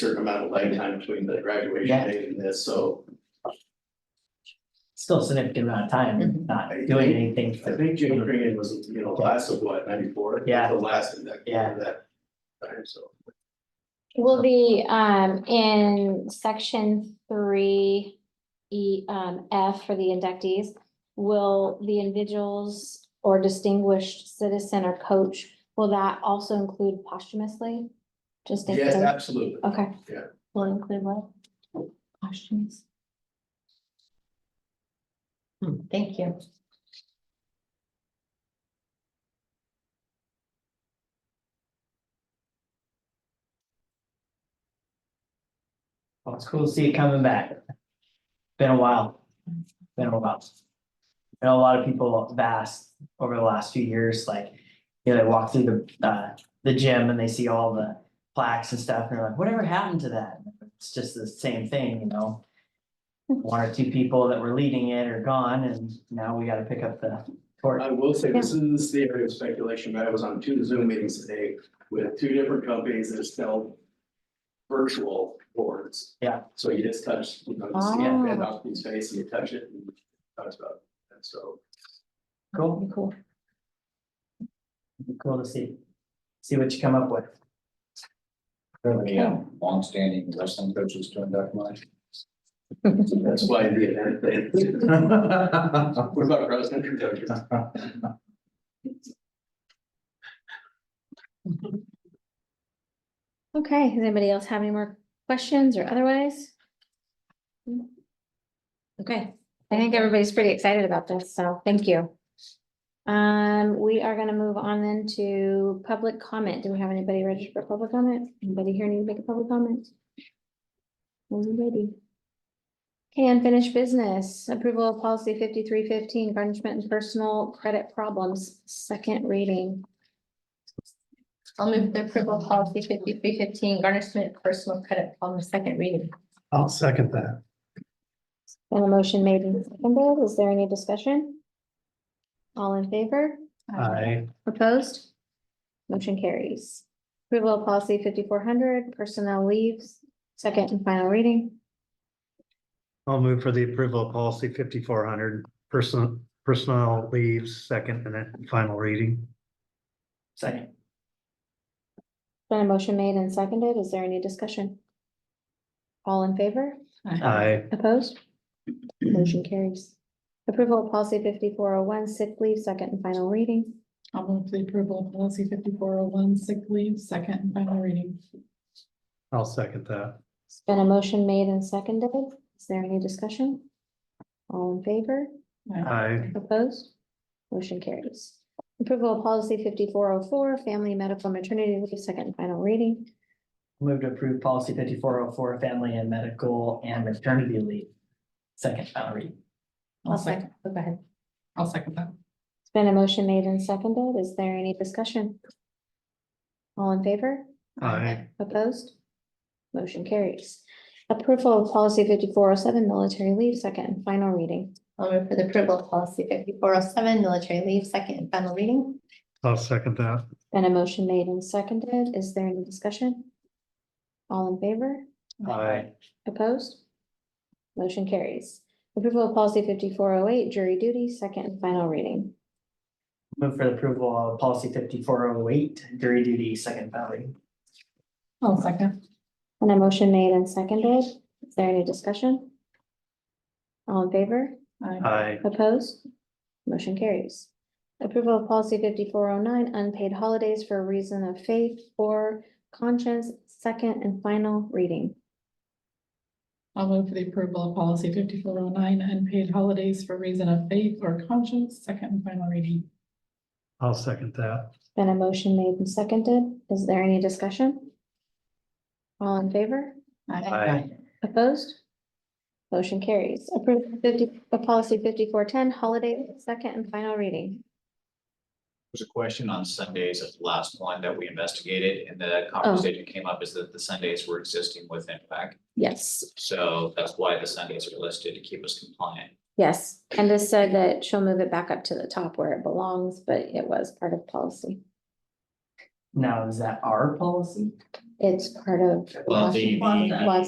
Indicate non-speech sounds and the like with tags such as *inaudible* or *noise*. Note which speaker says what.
Speaker 1: certain amount of lag time between the graduation
Speaker 2: Yeah.
Speaker 1: date and this, so.
Speaker 2: still a significant amount of time,
Speaker 3: Mhm.
Speaker 2: not doing anything
Speaker 1: I
Speaker 2: to,
Speaker 1: think Jim Crean was, you know, class of what, ninety-four?
Speaker 2: Yeah.
Speaker 1: The last in that,
Speaker 2: Yeah.
Speaker 1: that time, so.
Speaker 4: Will the, um, in section three, E, um, F for the inductees, will the individuals or distinguished citizen or coach, will that also include posthumously? Just in
Speaker 1: Yes,
Speaker 4: case-
Speaker 1: absolutely.
Speaker 4: okay.
Speaker 1: yeah.
Speaker 4: Will it include what? Posthumous.
Speaker 3: Thank you.
Speaker 2: well, it's cool to see it coming back. Been a while, been a while. I know a lot of people have asked over the last few years, like, you know, they walk through the, uh, the gym and they see all the plaques and stuff, and they're like, whatever happened to that? It's just the same thing, you know? One or two people that were leading it are gone, and now we gotta pick up the torch.
Speaker 1: I will say, this is the area of speculation, but I was on two Zoom meetings today with two different companies that sell virtual boards.
Speaker 2: Yeah.
Speaker 1: So you just touch, you know, you see it,
Speaker 4: Oh.
Speaker 1: and off his face, and you touch it, and it talks about it, and so.
Speaker 2: Cool.
Speaker 3: Cool.
Speaker 2: Be Cool to see, see what you come up with.
Speaker 5: There are any um, longstanding wrestling coaches to induct *laughs* mine.
Speaker 1: That's why the event thing. *laughs* What about cross country coaches?
Speaker 4: Okay, does anybody else have any more questions or otherwise? Okay, I think everybody's pretty excited about this, so thank you. Um, we are gonna move on then to public comment. Do we have anybody registered for public comment? Anybody here need to make a public comment? Anybody? Okay, unfinished business, approval of policy fifty-three fifteen, garnishment and personal credit problems, second reading.
Speaker 3: I'll move the approval of policy fifty-three fifteen, garnishment of personal credit on the second reading.
Speaker 6: I'll second that.
Speaker 4: And a motion made and seconded. Is there any discussion? All in favor?
Speaker 6: I,
Speaker 4: Opposed? Motion carries. Approval of policy fifty-four hundred, personnel leaves, second and final reading.
Speaker 6: I'll move for the approval of policy fifty-four hundred, person, personnel leaves, second and then final reading.
Speaker 2: Second.
Speaker 4: Been a motion made and seconded. Is there any discussion? All in favor?
Speaker 6: I,
Speaker 4: Opposed? Motion carries. Approval of policy fifty-four oh one, sick leave, second and final reading.
Speaker 7: I'll move the approval of policy fifty-four oh one, sick leave, second and final reading.
Speaker 6: I'll second that.
Speaker 4: It's been a motion made and seconded. Is there any discussion? All in favor?
Speaker 6: I,
Speaker 4: Opposed? Motion carries. Approval of policy fifty-four oh four, family medical maternity leave, second and final reading.
Speaker 2: Move to approve policy fifty-four oh four, family and medical and maternity leave. Second final read.
Speaker 7: I'll second,
Speaker 4: Oh, Go ahead.
Speaker 7: I'll second that.
Speaker 4: It's been a motion made and seconded. Is there any discussion? All in favor?
Speaker 6: I,
Speaker 4: Opposed? Motion carries. Approval of policy fifty-four oh seven, military leave, second and final reading.
Speaker 3: I'll move for the approval of policy fifty-four oh seven, military leave, second and final reading.
Speaker 6: I'll second that.
Speaker 4: Been a motion made and seconded. Is there any discussion? All in favor?
Speaker 2: Aye.
Speaker 4: Opposed? Motion carries. Approval of policy fifty-four oh eight, jury duty, second and final reading.
Speaker 2: Move for the approval of policy fifty-four oh eight, jury duty, second final read.
Speaker 7: I'll second.
Speaker 4: And a motion made and seconded. Is there any discussion? All in favor?
Speaker 7: Aye.
Speaker 6: I,
Speaker 4: Opposed? Motion carries. Approval of policy fifty-four oh nine, unpaid holidays for reason of faith or conscience, second and final reading.
Speaker 7: I'll move for the approval of policy fifty-four oh nine, unpaid holidays for reason of faith or conscience, second and final reading.
Speaker 6: I'll second that.
Speaker 4: Been a motion made and seconded. Is there any discussion? All in favor?
Speaker 6: I,
Speaker 4: Opposed? Motion carries. Approved fifty, uh, policy fifty-four ten, holiday, second and final reading.
Speaker 5: There's a question on Sundays at the last one that we investigated and the conversation came up is that the Sundays were existing with impact.
Speaker 4: Yes.
Speaker 5: So that's why the Sundays are listed to keep us compliant.
Speaker 4: Yes, Candace said that she'll move it back up to the top where it belongs, but it was part of policy.
Speaker 2: Now, is that our policy?
Speaker 4: It's part of.
Speaker 5: Well, the-
Speaker 4: Washington-
Speaker 5: the-
Speaker 4: Wash-